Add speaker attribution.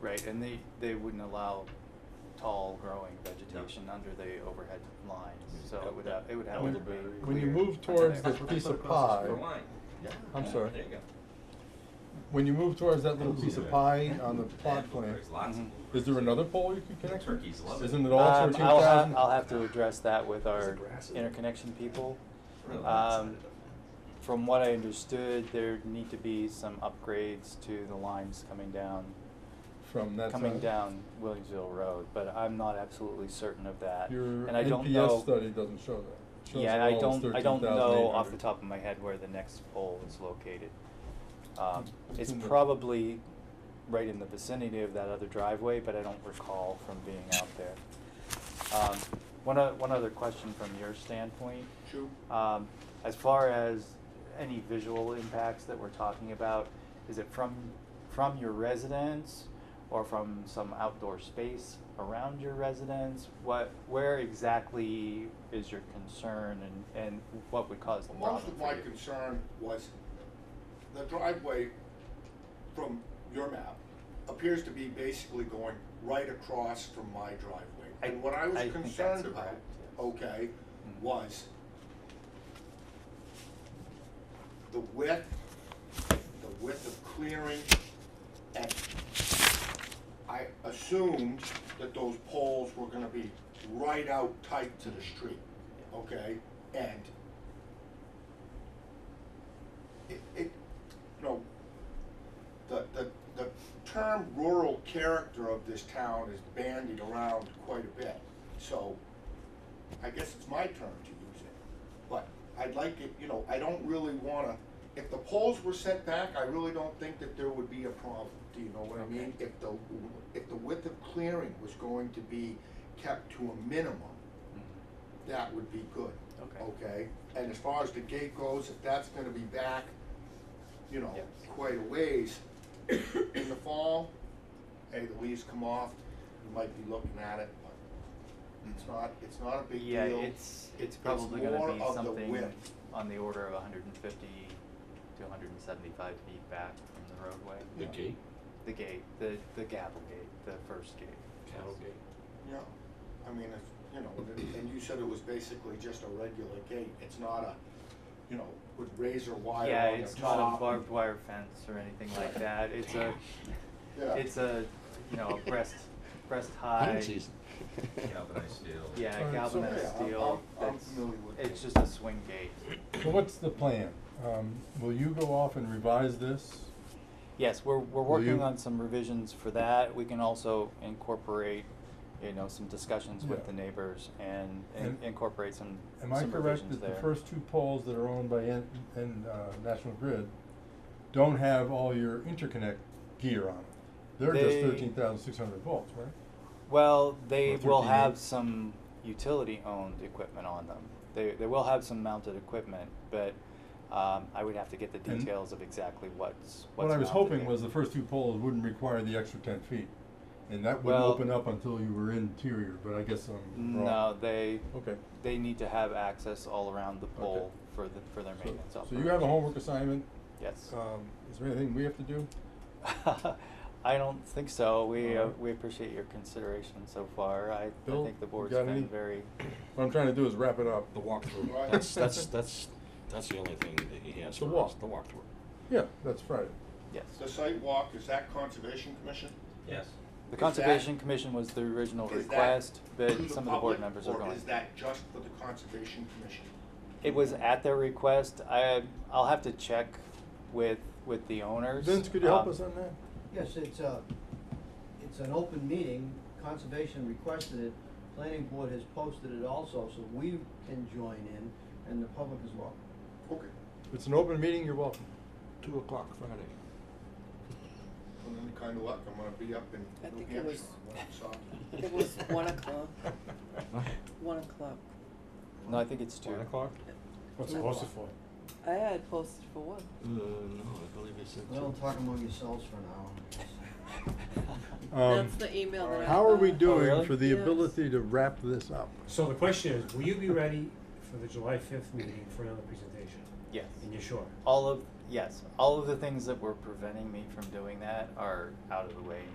Speaker 1: Right, and they, they wouldn't allow tall growing vegetation under the overhead lines, so it would have, it would have
Speaker 2: When-
Speaker 1: to be clear.
Speaker 2: when you move
Speaker 1: to
Speaker 2: towards
Speaker 1: there.
Speaker 2: the
Speaker 3: That's what they
Speaker 2: piece
Speaker 3: put
Speaker 2: of
Speaker 3: across
Speaker 2: pie-
Speaker 3: the line. Yeah.
Speaker 2: I'm
Speaker 3: Yeah,
Speaker 2: sorry.
Speaker 3: There you go.
Speaker 2: When you move towards that little piece of pie on the plot
Speaker 3: And
Speaker 2: plan,
Speaker 3: There's lots of.
Speaker 1: Mhm.
Speaker 3: bluebirds.
Speaker 2: is there another pole you can connect? to?
Speaker 3: Turkeys love it.
Speaker 2: Isn't it all
Speaker 1: Um,
Speaker 2: thirteen
Speaker 1: I'll
Speaker 2: thousand?
Speaker 1: have, I'll have to address that with
Speaker 4: There's
Speaker 1: our
Speaker 4: a grass in there.
Speaker 1: interconnection people.
Speaker 3: Really?
Speaker 1: Um, From what I understood, there need to be some upgrades to the lines coming down,
Speaker 2: From that
Speaker 1: coming
Speaker 2: side?
Speaker 1: down Williamsville Road, but I'm not absolutely certain of that.
Speaker 2: Your
Speaker 1: And I don't know.
Speaker 2: NPS study doesn't show that. It shows
Speaker 1: Yeah,
Speaker 2: it
Speaker 1: and I
Speaker 2: all as
Speaker 1: don't, I don't know off the
Speaker 2: 13,800.
Speaker 1: top of my head where the next pole is located. Um,
Speaker 2: It's
Speaker 1: it's
Speaker 2: in the-
Speaker 1: probably right in the vicinity of that other driveway, but I don't recall from being out there. Um, one, o- one other question from your standpoint.
Speaker 4: Sure.
Speaker 1: Um, as far as any visual impacts that we're talking about, is it from, from your residence or from some outdoor space around your residence? What, where exactly is your concern and, and what would cause the problem
Speaker 5: Most of my
Speaker 1: for you?
Speaker 5: concern was the driveway from your map appears to be basically going right across from my driveway.
Speaker 1: I-
Speaker 5: And what I was
Speaker 1: I think that's
Speaker 5: concerned about,
Speaker 1: correct, yes.
Speaker 5: okay,
Speaker 1: Mm.
Speaker 5: was the width, the width of clearing, and I assumed that those poles were gonna be right out tight to the street, okay? And it, it, you know, the, the, the term rural character of this town is bandied around quite a bit. So I guess it's my turn to use it. But I'd like it, you know, I don't really wanna, if the poles were set back, I really don't think that there would be a problem. Do you know what I mean? If the, if the width of clearing was going to be kept to a minimum, that would be good.
Speaker 1: Mm-hmm. Okay.
Speaker 5: Okay, and as far as the gate goes, if that's gonna be back, you know,
Speaker 1: Yes.
Speaker 5: quite a ways, in the fall, hey, the leaves come off, you might be looking at it, but it's not, it's not a big deal.
Speaker 1: Mm-hmm. Yeah, it's, it's probably gonna
Speaker 5: more
Speaker 1: be
Speaker 5: of the
Speaker 1: something
Speaker 5: width.
Speaker 1: on the order of hundred and fifty to hundred and seventy-five feet back from the roadway.
Speaker 4: The gate,
Speaker 1: The gate, the, the gavel gate, the first gate.
Speaker 4: cattle gate.
Speaker 5: Yeah, I mean, if, you know, and- and you said it was basically just a regular gate, it's not a, you know, with razor wire on the
Speaker 1: Yeah,
Speaker 5: top.
Speaker 1: it's not a barbed wire fence or anything like that, it's a,
Speaker 5: Yeah.
Speaker 1: it's a, you know, a breast, breast high.
Speaker 6: Hunting season.
Speaker 3: Galvanized steel.
Speaker 1: Yeah,
Speaker 2: Alright, so-
Speaker 1: galvanized
Speaker 5: Yeah, I'm-
Speaker 1: steel,
Speaker 5: I'm- I'm
Speaker 1: that's,
Speaker 5: familiar with
Speaker 1: it's
Speaker 5: it.
Speaker 1: just a swing gate.
Speaker 2: So what's the plan? Um, will you go off and revise this?
Speaker 1: Yes, we're, we're
Speaker 2: Will
Speaker 1: working
Speaker 2: you-
Speaker 1: on some revisions for that, we can also incorporate, you know, some discussions with
Speaker 2: Yeah.
Speaker 1: the neighbors and in-
Speaker 2: And-
Speaker 1: incorporate some,
Speaker 2: Am I
Speaker 1: some
Speaker 2: correct
Speaker 1: revisions
Speaker 2: that the
Speaker 1: there.
Speaker 2: first two poles that are owned by N, N, uh, National Grid don't have all your interconnect gear on them? They're just
Speaker 1: They-
Speaker 2: thirteen thousand six hundred volts, right?
Speaker 1: Well, they
Speaker 2: Or
Speaker 1: will
Speaker 2: 13
Speaker 1: have
Speaker 2: inch.
Speaker 1: some utility-owned equipment on them. They, they will have some mounted equipment, but, um, I would have to get the
Speaker 2: And-
Speaker 1: details of exactly what's, what's
Speaker 2: What I was
Speaker 1: mounted
Speaker 2: hoping
Speaker 1: there.
Speaker 2: was the first two poles wouldn't require the extra ten feet, and that wouldn't
Speaker 1: Well-
Speaker 2: open up until you were interior, but I guess I'm wrong.
Speaker 1: No, they,
Speaker 2: Okay.
Speaker 1: they need to have access all around the pole for the, for their
Speaker 2: So-
Speaker 1: maintenance
Speaker 2: So
Speaker 1: operation.
Speaker 2: you have a homework assignment,
Speaker 1: Yes.
Speaker 2: um, is there anything we have to do?
Speaker 1: I don't think so. We, uh,
Speaker 2: Alright.
Speaker 1: we appreciate your consideration so far. I, I
Speaker 2: Bill,
Speaker 1: think the
Speaker 2: you
Speaker 1: board's
Speaker 2: got
Speaker 1: been
Speaker 2: any?
Speaker 1: very,
Speaker 2: What I'm trying to do is wrap it up.
Speaker 6: The walkthrough,
Speaker 5: Right.
Speaker 6: that's, that's, that's, that's the only thing that he has
Speaker 2: The
Speaker 6: for us,
Speaker 2: walk.
Speaker 6: the walkthrough.
Speaker 2: Yeah, that's Friday.
Speaker 1: yes.
Speaker 5: The site walk, is that Conservation Commission?
Speaker 1: The
Speaker 3: Yes.
Speaker 5: is that-
Speaker 1: Conservation Commission was the original
Speaker 5: Is that
Speaker 1: request, but
Speaker 5: to
Speaker 1: some of the board
Speaker 5: public,
Speaker 1: members are going.
Speaker 5: Or is that just for the Conservation Commission?
Speaker 1: It was at their request. I, I'll have to check with, with the owners.
Speaker 2: Vince, could you help
Speaker 1: Um,
Speaker 2: us on that?
Speaker 7: Yes, it's a, it's an open meeting, conservation requested it, planning board has posted it also, so we can join in, and the public as well.
Speaker 5: Okay.
Speaker 2: It's an open meeting, you're welcome.
Speaker 6: Two o'clock Friday.
Speaker 5: And then kind of luck, I'm gonna be up
Speaker 8: I
Speaker 5: in New
Speaker 8: think it
Speaker 5: Hampshire
Speaker 8: was-
Speaker 5: on Monday, so.
Speaker 8: It was one o'clock, one o'clock.
Speaker 1: No, I think it's two.
Speaker 6: One o'clock?
Speaker 8: What's it posted
Speaker 4: for?
Speaker 8: I had posted for one.
Speaker 6: Uh, no, I believe he said
Speaker 7: Well,
Speaker 6: two.
Speaker 7: talk among yourselves for an hour.
Speaker 2: Um,
Speaker 8: That's the email that I
Speaker 2: How are we
Speaker 8: got.
Speaker 2: doing
Speaker 1: really?
Speaker 2: for the
Speaker 8: Yes.
Speaker 2: ability to wrap this up?
Speaker 4: So the question is, will you be ready for the July fifth meeting for another presentation?
Speaker 1: Yes.
Speaker 4: And you're sure?
Speaker 1: All of, yes, all of the things that were preventing me from doing that are out of the way